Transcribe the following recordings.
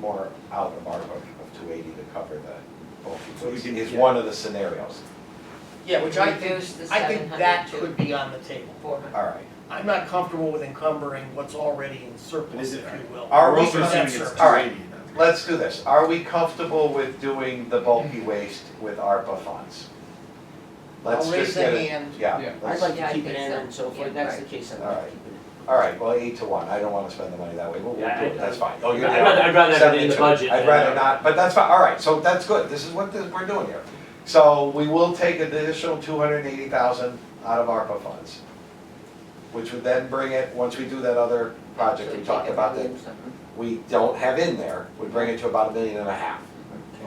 more out of our budget of two eighty to cover the So we bulky waste, can- is yeah. one of the scenarios. Yeah, which I think, Reduce the I think that 700 to could be on the table. Four hundred. All right, I'm not comfortable with encumbering what's already in But surplus, is if it- you will. Are We're we- also That's assuming it's surplus. all right. 280 then. let's do this. Are we comfortable with doing the bulky waste with ARPA funds? Let's I'll raise just get the it- hand. Yeah. Yeah, I'd let's, like Yeah, to I keep it think in so. and so forth, Yeah, that's the right. case, I'd All like right. to keep it in. all right, well, eight to one, I don't wanna spend the money that way, we'll, we'll Yeah, do I- it, that's fine. Oh, I'd you're- rather, I'd rather have it in the 72. budget. I'd than- uh, rather not, but that's fine, all right, so that's good, this is what this- we're doing here. So we will take an additional two hundred and eighty thousand out of ARPA funds, which would then bring it, once we do that other project Mm-hmm. we Take talked it about that million something. we don't have in there, would bring it to about a million and a half,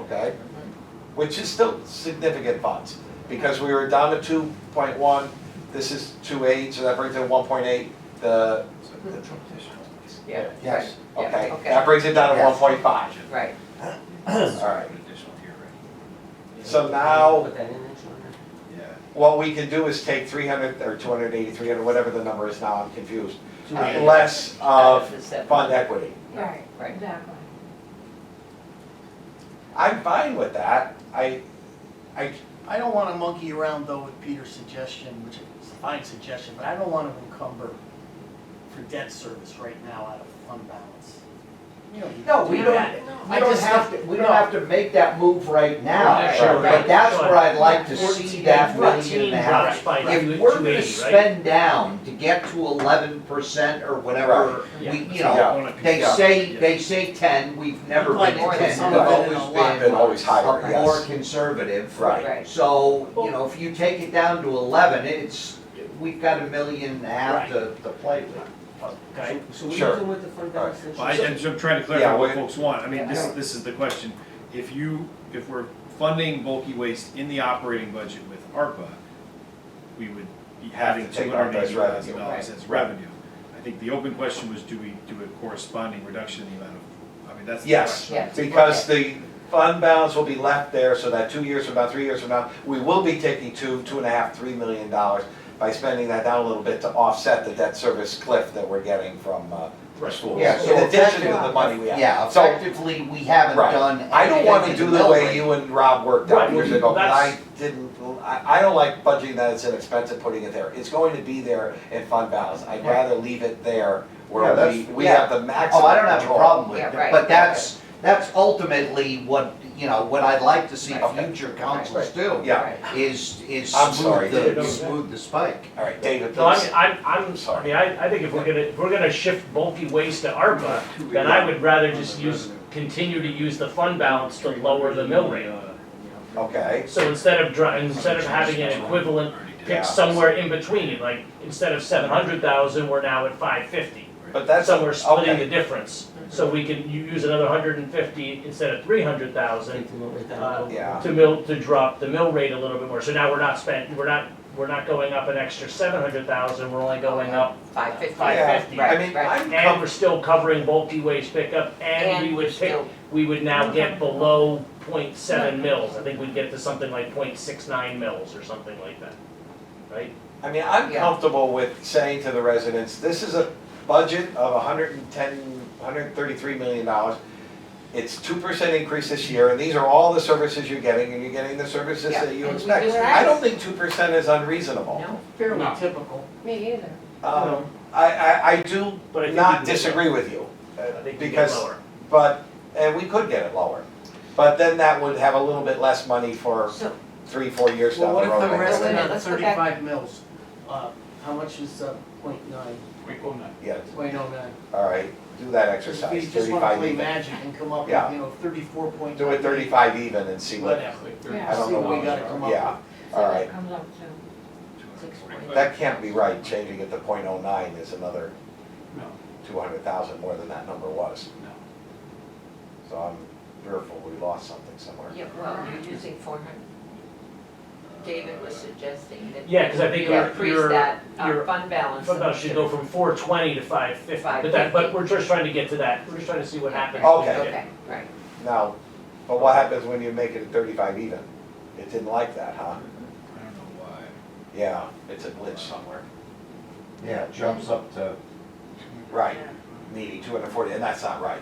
okay? Which is still significant funds, because we were down to two point one, this is two eight, so that brings it one point eight, the. Yeah. Yes, right, yeah, okay, okay. that brings it down to Yes. one point five. Right, All right. Additional tier, right? So now- Put that in there, sure. Yeah. What we can do is take three hundred, or 280, 300, whatever the number is now, I'm confused, Two eighty. less out of of the seven. fund equity. Right, Right. exactly. I'm fine with that, I, I, I don't wanna monkey around though with Peter's suggestion, which is a fine suggestion, but I don't wanna encumber for debt service right now out of fund balance. You know, you No, do we that. don't, I we don't just have to, don't- we don't no. have to make that move right now. Right, sure, But that's right. where I'd like to see Fourteen- that million Fourteen and a half. drops by two, If we're two gonna eighty, right? spend down to get to eleven percent or whatever, Yeah. we, you Yeah. know, On a piece. they Yeah. say, Yeah. they say ten, we've never Like been more at than ten, some we've of it in always a been. lot. been always higher, a more yes, conservative. right, Right, So, you know, if you take it down to eleven, it's, we've got a million and a half to, to play with. Okay, So what Sure. are you doing with the fund balance? then? Well, I, I'm just trying to Yeah, clarify we- what folks want, I mean, this, Yeah. this is the question. If you, if we're funding bulky waste in the operating budget with ARPA, we would be having Have to two take ARPA hundred as eighty thousand revenue, dollars as revenue. I think the open question was, do we do a corresponding reduction in the amount of, I mean, that's the Yes. question. yes. because the fund balance will be left there, so that two years from now, three years from now, we will be taking two, two and a half, three million dollars by spending that down a little bit to offset the debt service cliff that we're getting from, uh, the Right. schools, Yeah, so in addition to the effective- money we have. Yeah, So- effectively, we haven't Right. done I don't wanna anything to do the the mill way rate. you and Rob worked out Right, years ago, but I that's- didn't, I, I don't like budgeting that it's inexpensive putting it there. It's going to be there in fund balance, I'd Right. rather leave it there Yeah, where we, that's- we yeah. have the maximum Oh, I don't have a control. problem with Yeah, it, right, but that's, that's ultimately what, you know, what I'd like to see Okay. future councils do. Yeah. Right. Is, is I'm sorry, smooth dude. the, smooth the spike. All right, David, no, please. I'm, I'm, I'm, I Sorry. mean, I, I think if we're gonna, if we're gonna shift bulky waste to ARPA, then I would rather just use, continue to use the fund balance to lower the mill Uh, rate. Okay, So instead of dri, instead of having an equivalent, Yeah. pick somewhere in between, like, instead of seven hundred thousand, we're now at five fifty. but that's, So we're splitting the okay, difference, so we can u- use another hundred and fifty instead of three hundred thousand Take the mill rate down a Uh, little bit. yeah, to mill, to drop the mill rate a little bit more, so now we're not spent, we're not, we're not going up an extra seven hundred thousand, we're only going up Five fifty. five fifty. I Right, mean, right. I'm And we're still covering bulky waste pickup, and we And would pick, still, we would now get below point seven mils, I think we'd get to something like point six nine mils or something like that, right? I mean, I'm Yeah. comfortable with saying to the residents, this is a budget of hundred and ten, hundred and thirty-three million dollars. It's two percent increase this year, and these are all the services you're getting, and you're getting the services Yeah, that you and we expect. do that. I don't think two percent is unreasonable. No, Fairly No. typical. Me either. Um, I, I, I do But I think we not can get disagree with you, uh, I think we get because, lower. but, and we could get it lower. But then that would have a little bit less money for so, three, four years Well, down the what road. if the I rest guess. of that Let's go back. thirty-five mils, uh, how much is, uh, point nine, Wait, hold on. Yeah, point oh nine? all right, do that If we exercise, just wanna thirty-five play even. magic and come up Yeah. with, you know, thirty-four point Do nine. it thirty-five even and see what, Whatever. Yeah. I don't See know what we what- gotta come up with. yeah, all right. Comes up to, six forty. That can't be right, changing it to point oh nine is another No, two hundred thousand more than that number was. no. So I'm fearful we lost something somewhere. yeah, well, you're using four hundred. David was suggesting that. Yeah, 'cause I think you our- your- Increase that, your our fund balance. Fund balance should go from four twenty to five fifty, but that, but we're just trying to get to that, we're just trying to see what happens. when we Okay. get- Okay, right. Now, but what happens when you make it a thirty-five even? It didn't like that, huh? I don't know why. Yeah, it's a glitch somewhere. Yeah, it jumps up to. Right, needy two hundred forty, and that's not right.